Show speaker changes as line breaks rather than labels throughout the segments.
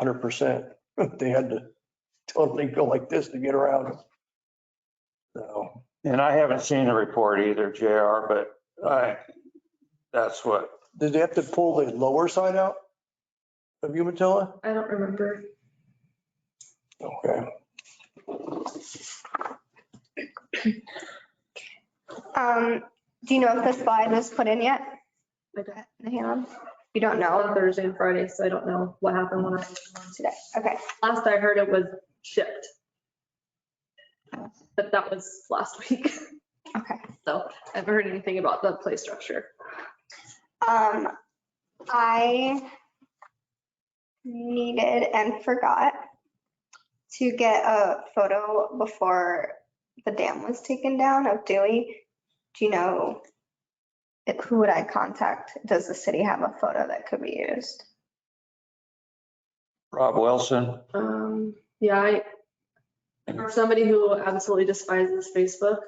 hundred percent. They had to totally go like this to get around them. So,
And I haven't seen the report either, JR, but I, that's what,
did they have to pull the lower side out of Umatilla?
I don't remember.
Okay,
Um, do you know if the slide was put in yet?
I don't-
The hand? You
I
don't
know
know
on Thursday and Friday, so I don't know what happened when I,
today. Okay.
last I heard it was shipped. But that was last week,
Okay.
so I haven't heard anything about the play structure.
Um, I needed and forgot to get a photo before the dam was taken down of Dewey. Do you know, it- who would I contact? Does the city have a photo that could be used?
Rob Wilson,
Um, yeah, I, for somebody who absolutely despises Facebook,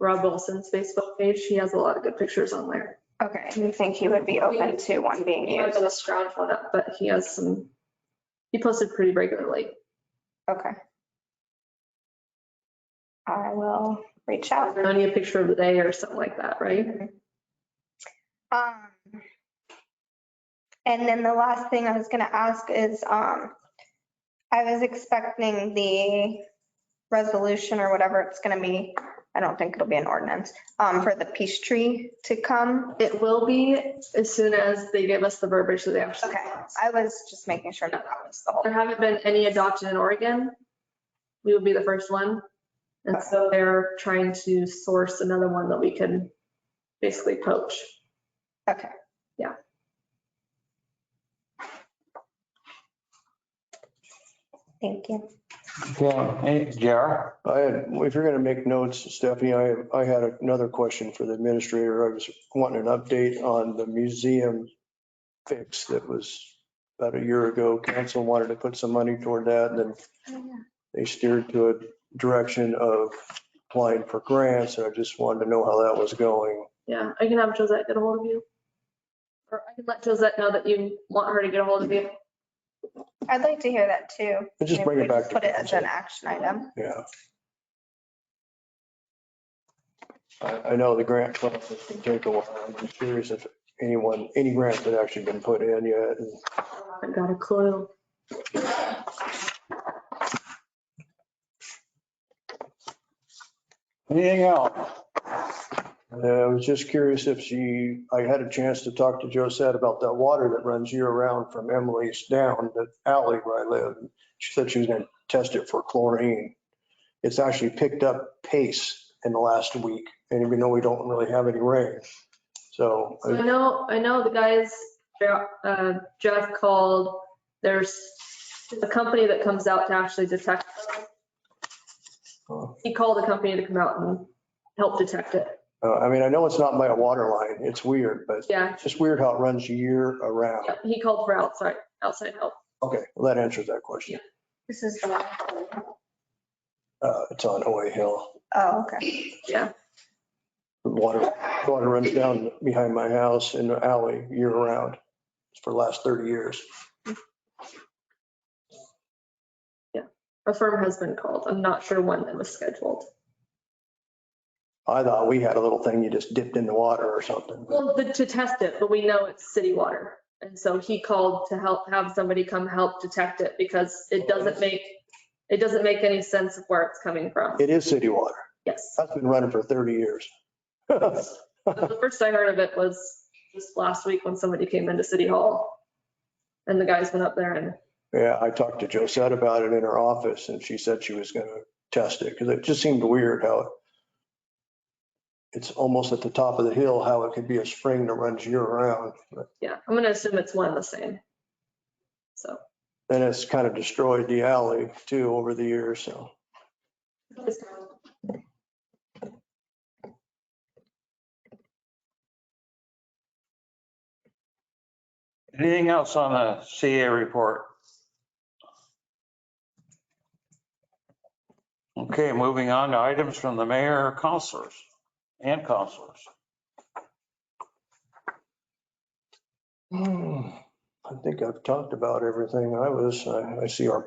Rob Wilson's Facebook page, he has a lot of good pictures on there.
Okay, do you think he would be open to one being
He
used?
has a scrounge one up, but he has some, he posted pretty regularly.
Okay. I will reach out.
Only a picture of the day or something like that, right?
Um, and then the last thing I was gonna ask is, um, I was expecting the resolution or whatever it's gonna be. I don't think it'll be an ordinance, um, for the peace tree to come.
It will be as soon as they give us the verbiage that they actually.
Okay, I was just making sure that that was the whole.
There haven't been any adopted in Oregon. We would be the first one. And so they're trying to source another one that we can basically poach.
Okay.
Yeah.
Thank you.
okay, JR?
I had, if you're gonna make notes, Stephanie, I, I had another question for the administrator. I was wanting an update on the museum fix that was about a year ago. Council wanted to put some money toward that and then they steered to a direction of applying for grants, and I just wanted to know how that was going.
Yeah, I can have Josette get a hold of you. Or I can let Josette know that you want her to get a hold of you.
I'd like to hear that too.
But Just
Maybe
bring
we
it back to
Put it as
council.
an action item.
Yeah. I, I know the grant process can take a while. I'm curious if anyone, any grants had actually been put in yet. and
I got a clue.
Anything else?
Uh, I was just curious if she, I had a chance to talk to Josette about that water that runs year round from Emily's down the alley where I live. She said she was gonna test it for chlorine. It's actually picked up pace in the last week, and even though we don't really have any rain. So
So I know, I know the guys, uh, Jeff called, there's a company that comes out to actually detect.
uh,
He called a company to come out and help detect it.
Uh, I mean, I know it's not by a water line. It's weird, but
Yeah,
it's just weird how it runs year around.
Yep, He called for outside, outside help.
Okay, well, that answers that question.
This is the one.
Uh, It's on OA Hill.
Oh, okay.
The Water, water runs down behind my house in the alley year round for the last 30 years.
A firm has been called. I'm not sure when that was scheduled.
I thought we had a little thing you just dipped in the water or something.
Well, the- to test it, but we know it's city water. And so he called to help, have somebody come help detect it because it doesn't make, it doesn't make any sense of where it's coming from.
It is city water.
Yes.
That's been running for 30 years.
But The first I heard of it was just last week when somebody came into City Hall. And the guys went up there and
Yeah, I talked to Josette about it in her office and she said she was going to test it because it just seemed weird how it- it's almost at the top of the hill, how it could be a spring that runs year round. But
yeah, I'm gonna assume it's one and the same. So
Then it's kind of destroyed the alley too over the years, so.
Anything else on the CA report? Okay, moving on to items from the mayor, counselors, and counselors.
I think I've talked about everything I was, I I see our